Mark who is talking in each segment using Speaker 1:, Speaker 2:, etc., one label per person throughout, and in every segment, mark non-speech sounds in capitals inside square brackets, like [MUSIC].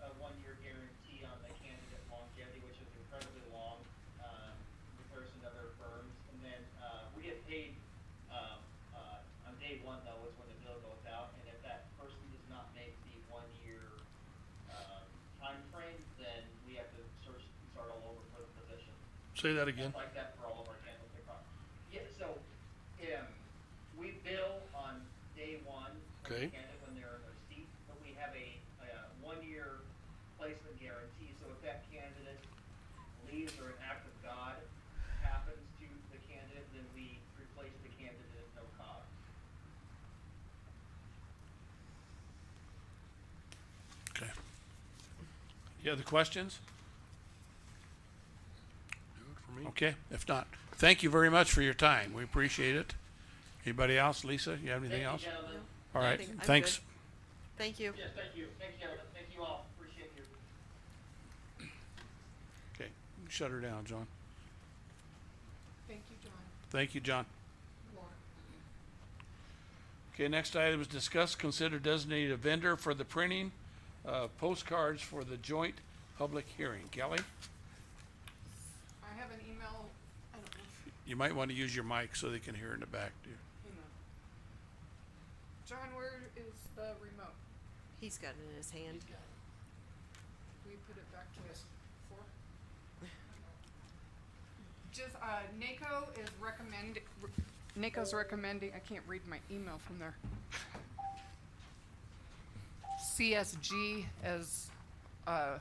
Speaker 1: um, uh, uh,
Speaker 2: Say that again.
Speaker 1: Like that for all of our candlestick properties. Yeah, so, um, we bill on day one. when
Speaker 2: Okay.
Speaker 1: the candidate- When they're in their seat, but we have a, uh one-year placement guarantee, so if that candidate leaves or an act of God happens to the candidate, then we replace the candidate at no cost.
Speaker 2: Okay. You have the questions? Okay, if not, thank you very much for your time. We appreciate it. Anybody else? Lisa, you have anything else?
Speaker 1: Thank you, gentlemen.
Speaker 2: All right,
Speaker 3: Nothing. I'm
Speaker 2: thanks.
Speaker 3: good. Thank you.
Speaker 1: Yes, thank you. Thank you, gentlemen. Thank you all. Appreciate you.
Speaker 2: Okay, shut her down, John.
Speaker 4: Thank you, John.
Speaker 2: Thank you, John.
Speaker 4: Laura.
Speaker 2: Okay, next item is discuss, consider designated a vendor for the printing of postcards for the joint public hearing. Kelly,
Speaker 4: I have an email, I don't know, [LAUGHS] if-
Speaker 2: you might want to use your mic so they can hear in the back, dear.
Speaker 4: hang on. John, where is the remote?
Speaker 3: He's got it in his hand.
Speaker 4: We put it back to us four? Just, uh, NACO is recommend, re- NACO's recommending, I can't read my email from there. CSG is, uh,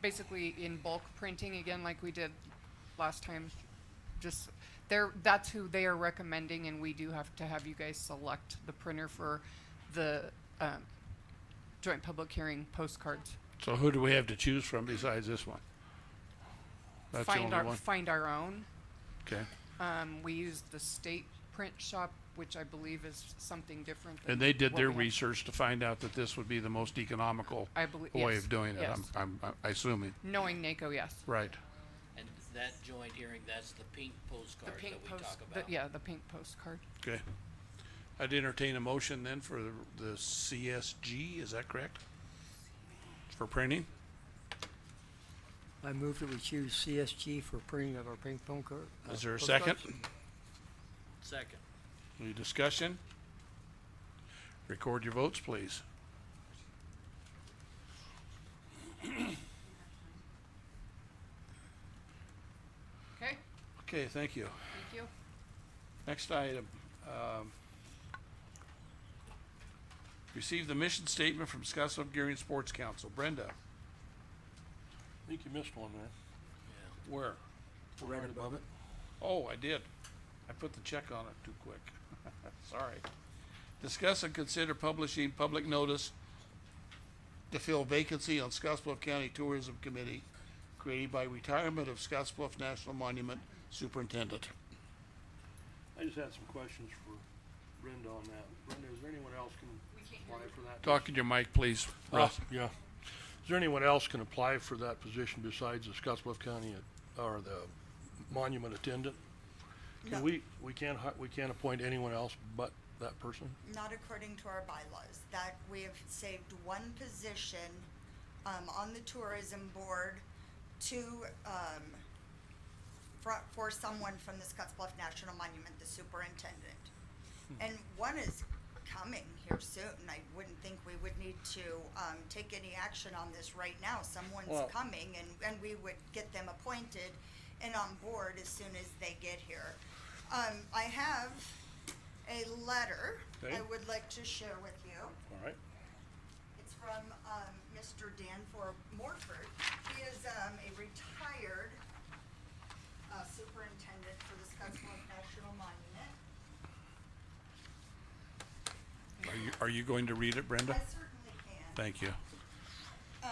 Speaker 4: basically in bulk printing again like we did last time. Just, they're, that's who they are recommending and we do have to have you guys select the printer for the, um, joint public hearing postcards.
Speaker 2: So who do we have to choose from besides this one? That's the
Speaker 4: find
Speaker 2: only
Speaker 4: our
Speaker 2: one?
Speaker 4: find our own.
Speaker 2: Okay,
Speaker 4: Um, we use the state print shop, which I believe is something different. Than
Speaker 2: and they did
Speaker 4: what
Speaker 2: their
Speaker 4: we have.
Speaker 2: research to find out that this would be the most economical
Speaker 4: I believe
Speaker 2: way
Speaker 4: yes,
Speaker 2: of doing it,
Speaker 4: yes.
Speaker 2: I'm, I'm, I'm assuming,
Speaker 4: Knowing NACO, yes.
Speaker 2: right?
Speaker 5: And that joint hearing, that's the pink
Speaker 4: The
Speaker 5: postcard that
Speaker 4: pink
Speaker 5: we
Speaker 4: post,
Speaker 5: talk
Speaker 4: the,
Speaker 5: about.
Speaker 4: yeah, the pink postcard.
Speaker 2: Okay. I'd entertain a motion then for the, the CSG, is that correct? For printing?
Speaker 6: I move that we choose CSG for printing of our ping pong card. uh,
Speaker 2: Is there a second?
Speaker 6: postcards.
Speaker 5: Second,
Speaker 2: Any discussion? Record your votes, please.
Speaker 4: Okay,
Speaker 2: Okay, thank you.
Speaker 4: thank you.
Speaker 2: Next item. um, Receive the mission statement from Scottsbluff Gearing Sports Council. Brenda? I think you missed one there.
Speaker 5: yeah.
Speaker 2: Where?
Speaker 6: Right above it.
Speaker 2: Oh, I did. I put the check on it too quick. [LAUGHS] Sorry. Discuss and consider publishing public notice to fill vacancy on Scottsbluff County Tourism Committee created by retirement of Scottsbluff National Monument Superintendent.
Speaker 7: I just had some questions for Brenda on that. Brenda, is there anyone else can apply for that?
Speaker 2: Talk in your mic, please, Russ.
Speaker 7: Uh, Yeah. Is there anyone else can apply for that position besides the Scottsbluff County uh, or the monument attendant?
Speaker 8: No.
Speaker 7: Can we, we can't, hi- we can't appoint anyone else but that person?
Speaker 8: Not according to our bylaws, that we have saved one position, um, on the tourism board to, um, for, for someone from the Scotts Bluff National Monument, the superintendent. And one is coming here soon, I wouldn't think we would need to, um, take any action on this right now,
Speaker 7: Well-
Speaker 8: someone's coming and, and we would get them appointed and on board as soon as they get here. Um, I have a letter
Speaker 7: Okay.
Speaker 8: I would like to share with you.
Speaker 7: All right.
Speaker 8: It's from um, Mr. Danforth Morford. He is um, a retired uh, superintendent for the Scottsbluff National Monument.
Speaker 2: Are you, are you going to read it, Brenda?
Speaker 8: I certainly can.
Speaker 2: Thank you.
Speaker 8: Uh,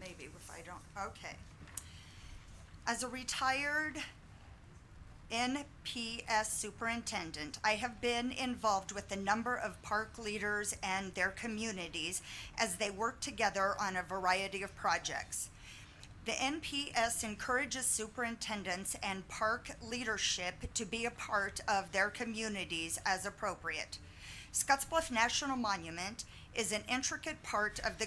Speaker 8: maybe if I don't, okay. As a retired NPS superintendent, I have been involved with a number of park leaders and their communities as they work together on a variety of projects. The NPS encourages superintendents and park leadership to be a part of their communities as appropriate. Scottsbluff National Monument is an intricate part of the